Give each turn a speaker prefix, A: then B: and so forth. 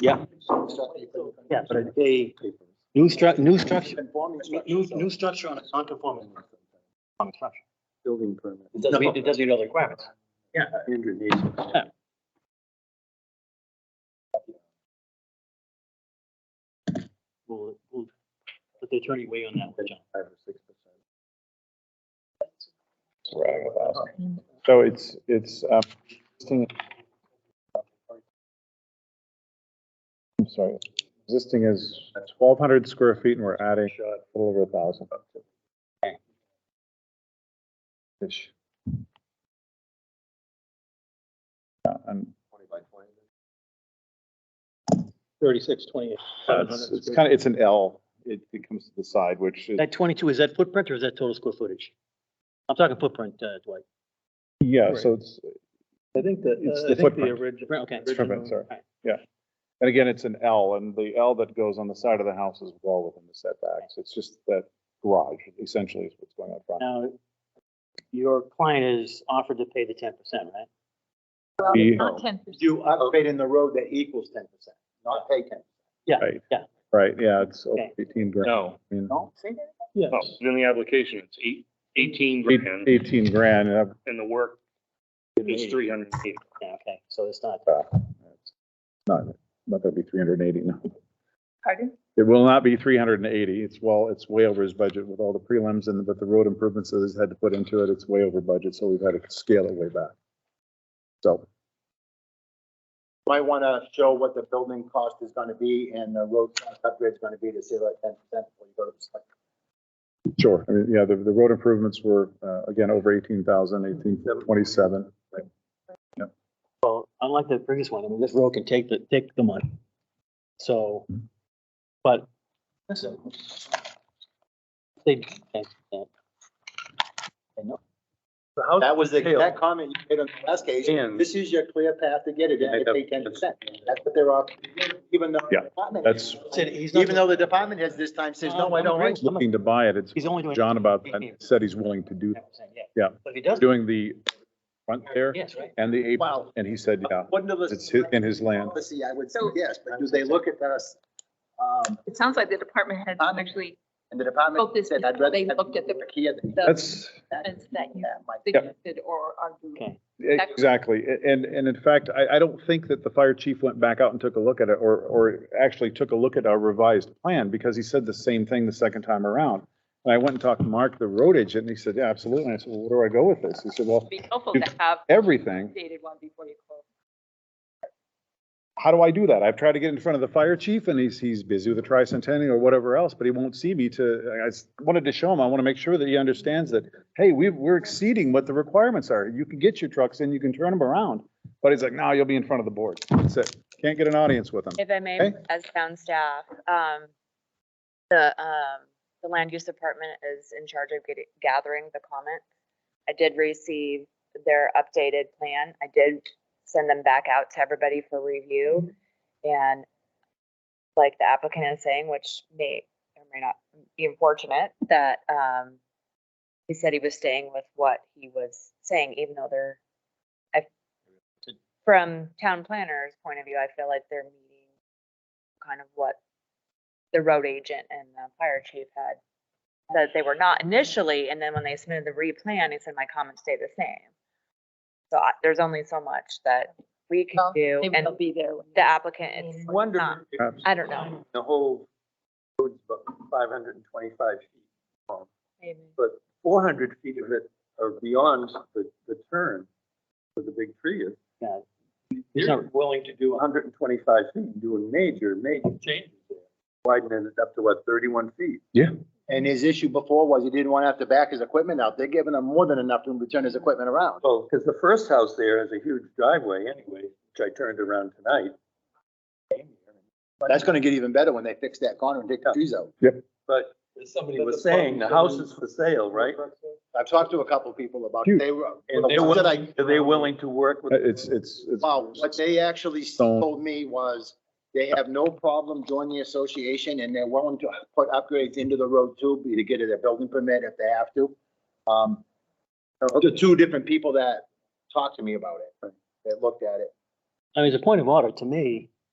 A: Yeah.
B: Yeah, but
A: a new stru, new structure, new, new structure on a non-conforming. on a structure.
C: Building permit.
B: it doesn't meet, it doesn't meet all the requirements.
C: Andrew needs.
A: We'll, we'll, let the attorney weigh on that, one, John.
C: Five or six percent.
D: surrounding the house. So it's, it's, um, existing. I'm sorry, existing is twelve hundred square feet and we're adding a little over a thousand. Ish. Yeah, and
C: Twenty by twenty.
A: Thirty-six, twenty-eight.
D: it's, it's kind of, it's an L, it, it comes to the side, which is,
A: That twenty-two, is that footprint or is that total square footage? I'm talking footprint, uh, Dwight.
D: yeah, so it's,
E: I think that,
D: It's
E: uh, I
D: the
E: think the
D: footprint.
E: original.
A: Right, okay.
D: It's footprint, sorry.
A: Alright.
D: and again, it's an L, and the L that goes on the side of the house is well within the setbacks, it's just that garage essentially is what's going on front.
A: Now, your client is offered to pay the ten percent, right?
D: He-
F: Not ten percent.
B: You
A: Oh.
B: upgrade in the road that equals ten percent, not pay ten.
D: Right, yeah, it's over
A: Okay.
D: eighteen grand.
G: No,
D: I mean,
B: No, say that.
G: no, in the application, it's eight, eighteen
D: eight-
G: grand
D: Eighteen grand, uh, and I've-
G: and the work is three hundred and eighty.
A: Yeah, okay, so it's not,
D: it's not, not gonna be three hundred and eighty, no.
F: Pardon?
D: It will not be three hundred and eighty, it's well, it's way over his budget with all the prelims and, but the road improvements that he's had to put into it, it's way over budget, so we've had to scale it way back. So,
B: Might want to show what the building cost is going to be and the road upgrade is going to be to save that ten percent before you go to the select.
D: sure, I mean, yeah, the, the road improvements were, uh, again, over eighteen thousand, eighteen twenty-seven.
A: well, unlike the previous one, I mean, this road can take the, take the money. So, but, listen. They, they- they-
B: That was the, that comment you made on the last case,
C: And-
B: this is your clear path to get it, and pay ten percent. That's what they're offering, even though. the
D: Yeah,
B: department-
D: that's-
A: Said he's not-
B: Even though the department has this time says, no, I don't want. you."
D: Looking to buy it, it's
A: He's only doing.
D: John about, that, said he's willing to do,
A: 10%, Yeah.
D: Yeah.
A: But if he doesn't,
D: doing the front there
A: yes, right?
D: and the apron,
B: Wow.
D: and he said, yeah,
B: Wouldn't have listened
D: it's his, in his
B: to
D: land.
B: policy, I would say yes, but do they look at us? Um,
F: It sounds like the department had Um, actually,
B: and the department
F: Focus
B: said, I'd
F: before
B: rather.
F: they
B: have
F: looked at the-
B: Kia than
F: the
D: That's,
F: sense that you
B: that, Mike.
F: suggested or argued.
A: Okay.
F: Exactly.
D: e-, Exactly. A- And, and in fact, I, I don't think that the fire chief went back out and took a look at it or, or actually took a look at our revised plan because he said the same thing the second time around. And I went and talked to Mark, the road agent, and he said, yeah, absolutely. And I said, well, where do I go with this? He said, well,
F: Be helpful to have
D: everything.
F: updated one before you close.
D: How do I do that? I've tried to get in front of the fire chief and he's, he's busy with the tricentennial or whatever else, but he won't see me to, I s- wanted to show him, I want to make sure that he understands that, hey, we, we're exceeding what the requirements are. You can get your trucks in, you can turn them around. But he's like, no, you'll be in front of the board. That's it. Can't get an audience with him.
H: If I may,
D: Okay.
H: as town staff, um, the, um, the land use department is in charge of getting, gathering the comments. I did receive their updated plan. I did send them back out to everybody for review. And like the applicant is saying, which may or may not be unfortunate, that, um, he said he was staying with what he was saying, even though they're, I, from town planner's point of view, I feel like they're meeting kind of what the road agent and the fire chief had said they were not initially, and then when they submitted the replan, he said my comments stay the same. So I- there's only so much that we can
F: Well,
H: do,
F: They
H: and
F: will be there. when you-
H: the applicant, it's
F: mean,
H: not-
B: Wonder if
H: I don't know.
C: The whole road's about five hundred and twenty-five feet, but four hundred feet of it are beyond the, the turn for the big tree. is.
A: He's not-
C: You're willing to do hundred and twenty-five feet, and do a major, major change. Widening it up to what, thirty-one feet?
B: And his issue before was he didn't want to have to back his equipment out. They're giving him more than enough room to turn his equipment around.
C: Well, because the first house there has a huge driveway anyway, which I turned around tonight.
B: That's gonna get even better when they fix that corner and take the trees out.
C: But
E: Somebody
C: he was saying the house is for sale, right?
B: I've talked to a couple people about,
D: Huge.
B: it. they were,
C: And
B: the
C: they're
B: ones that
C: willing,
B: I-
C: are they willing to work with?
D: It's, it's, it's.
B: wow, what they actually
D: Stone.
B: told me was they have no problem joining the association and they're willing to put upgrades into the road too, be to get a building permit if they have to. Um, the two different people that talked to me about it, that looked at it.
A: I mean, as a point of order, to me,